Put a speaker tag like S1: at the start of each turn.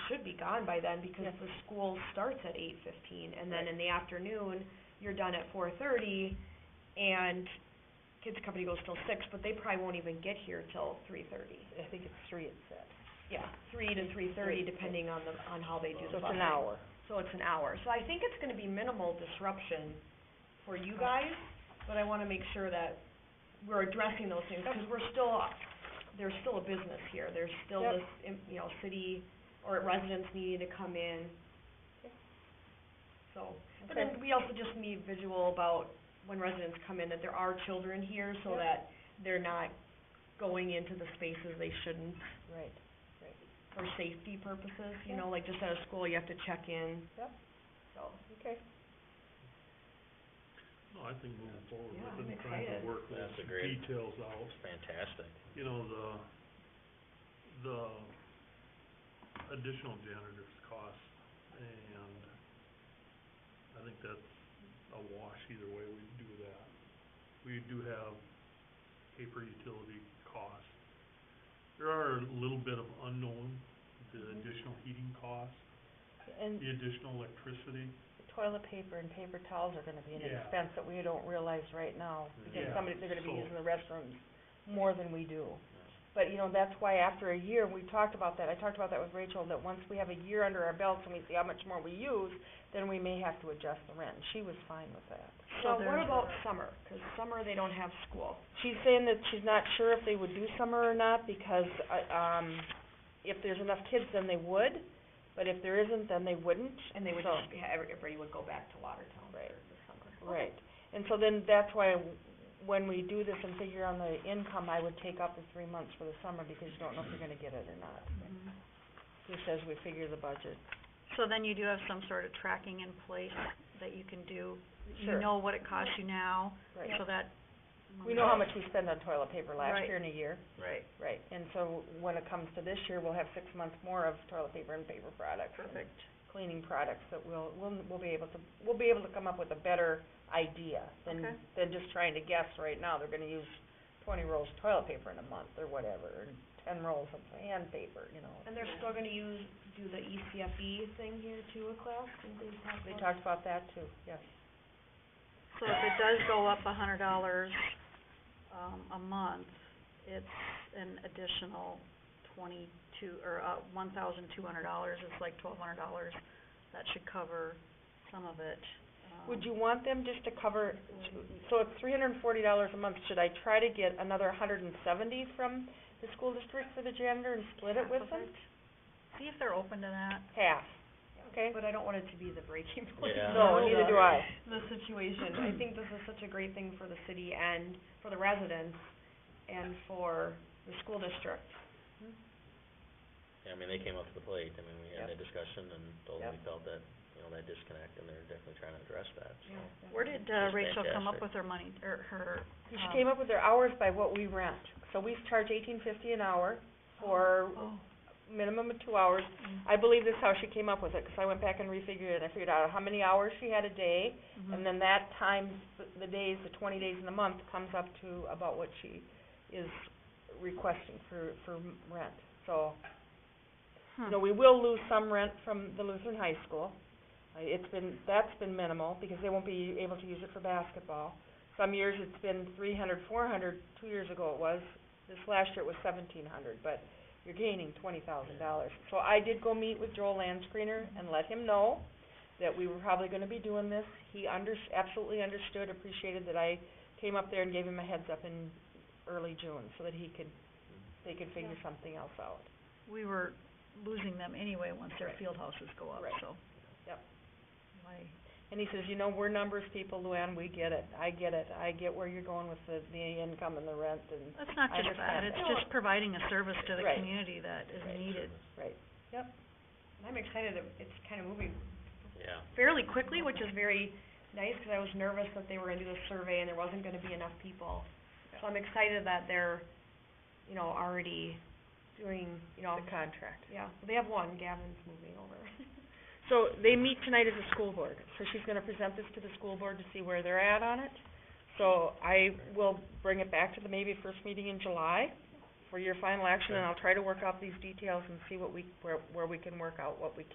S1: gone by then because
S2: Yes.
S1: the school starts at eight fifteen and then in the afternoon, you're done at four thirty and kids company goes till six, but they probably won't even get here till three thirty.
S2: I think it's three it said.
S1: Yeah, three to three
S2: Three,
S1: thirty
S2: yeah.
S1: depending on the, on how they do
S2: So
S1: the
S2: it's
S1: busing.
S2: an hour.
S1: So it's an hour. So I think it's gonna be minimal disruption for you guys, but I wanna make sure that we're addressing those things, cause we're still, there's still a business here. There's still
S2: Yep.
S1: this, im- you know, city or residents needing to come in.
S2: Okay.
S1: So, but then we also just need visual about when residents come in, that there are children here, so
S2: Yep.
S1: that they're not going into the spaces they shouldn't
S2: Right.
S1: for safety purposes, you
S2: Yeah.
S1: know, like just at a school, you have to check in.
S2: Yep.
S1: So,
S2: Okay.
S3: No, I think moving forward,
S1: Yeah,
S3: we've been
S1: I'm
S3: trying to
S1: excited.
S3: work those
S4: That's a great-
S3: details out,
S4: Fantastic.
S3: you know, the, the additional janitor's cost, and I think that's a wash either way we do that. We do have paper utility costs. There are a little bit of unknown, the
S1: Mm-hmm.
S2: Mhm.
S3: additional heating costs,
S2: And
S3: the additional electricity,
S2: toilet paper and paper towels are gonna be an
S3: Yeah.
S2: expense that we don't realize right now, because
S3: Yeah,
S2: somebody, they're gonna be
S3: so-
S2: using the restrooms more than we do. But, you know, that's why after a year, we talked about that, I talked about that with Rachel, that once we have a year under our belts and we see how much more we use, then we may have to adjust the rent, and she was fine with that.
S1: now what
S2: there's-
S1: about summer? 'Cause summer they don't have school.
S2: She's saying that she's not sure if they would do summer or not, because, uh, um, if there's enough kids, then they would, but if there isn't, then they wouldn't,
S1: And they would
S2: so-
S1: just, yeah, every- everybody would go back to Watertown for
S2: Right.
S1: the summer.
S2: Right, and so then that's why w- when we do this and figure on the income, I would take out the three months for the summer because you don't know if you're gonna get it or not. Just as we figure the budget.
S5: So then you do have some sort of tracking in place that you can do.
S2: Sure.
S5: You know what it costs you now,
S2: Right,
S5: so that.
S2: we know how much we spend on toilet paper last
S5: Right.
S2: year in a year,
S4: Right.
S2: right, and so when it comes to this year, we'll have six months more of toilet paper and paper products. and
S4: Perfect.
S2: Cleaning products that we'll, we'll, we'll be able to, we'll be able to come up with a better idea than,
S5: Okay.
S2: than just trying to guess right now, they're gonna use twenty rolls of toilet paper in a month or whatever, and ten rolls of hand paper, you know.
S1: And they're still gonna use, do the
S2: E
S1: ECFE thing here too, a class, and they talk
S2: They
S1: about-
S2: talked about that too, yes.
S5: So if it does go up a hundred dollars, um, a month, it's an additional twenty-two, or, uh, one thousand two hundred dollars, it's like twelve hundred dollars. That should cover some of it. um,
S2: Would you want them just to cover, so it's three hundred and forty dollars a month, should I try to get another hundred and seventy from the school district for the janitor and split it
S5: half
S2: with
S5: of
S2: them?
S5: it? See if they're open to that.
S2: Half, okay?
S1: But I don't want it to be the breaking point.
S4: Yeah.
S2: No,
S1: of
S2: neither
S1: the-
S2: do I.
S1: The situation, I think this is such a great thing for the city and for the residents and for the school district.
S4: Yeah, I mean, they came up to the plate, I mean, we had
S2: Yep.
S4: that discussion and told them we felt that, you know, that disconnect, and they're definitely trying to address that, so.
S5: Where did, uh,
S4: Just
S5: Rachel come up
S4: fantastic.
S5: with her money, or her, um,
S2: She came up with their hours by what we rent, so we charge eighteen fifty an hour for
S5: oh,
S2: minimum of two hours.
S5: mm,
S2: I believe this is how she came up with it, 'cause I went back and refigured it, and I figured out how many hours she had a day,
S5: mhm.
S2: And then that times th- the days, the twenty days in the month, comes up to about what she is requesting for, for m- rent. So,
S5: Hmm.
S2: you know, we will lose some rent from the Lutheran High School. Uh, It's been, that's been minimal, because they won't be able to use it for basketball. Some years it's been three hundred, four hundred, two years ago it was, this last year it was seventeen hundred, but you're gaining twenty thousand dollars. So I did go meet with Joel Landscreener and let him know that we were probably gonna be doing this. He under, absolutely understood, appreciated that I came up there and gave him a heads up in early June, so that he could, they could figure something else out.
S5: we were losing them anyway once their
S2: Right.
S5: field houses go up,
S2: Right.
S5: so.
S2: Yep.
S5: Why,
S2: And he says, you know, we're numbers people, Luann, we get it, I get it, I get where you're going with the, the income and the rent and,
S5: that's not
S2: I
S5: just that,
S2: understand
S5: it's
S2: that.
S5: just providing a service to the
S2: Right.
S5: community that is
S2: Right.
S5: needed.
S2: right.
S1: And I'm excited, that it's kinda moving
S4: Yeah,
S1: fairly quickly, which is very nice, 'cause I was nervous that they were gonna do the survey and there wasn't gonna be enough people. So I'm excited that they're, you know, already doing, you know,
S2: The contract.
S1: yeah, they have one, Gavin's moving over.
S2: So they meet tonight as a school board, so she's gonna present this to the school board to see where they're at on it. So I will bring it back to the maybe first meeting in July for your final action, and I'll try to work out these details and see what we, where, where we can work out what we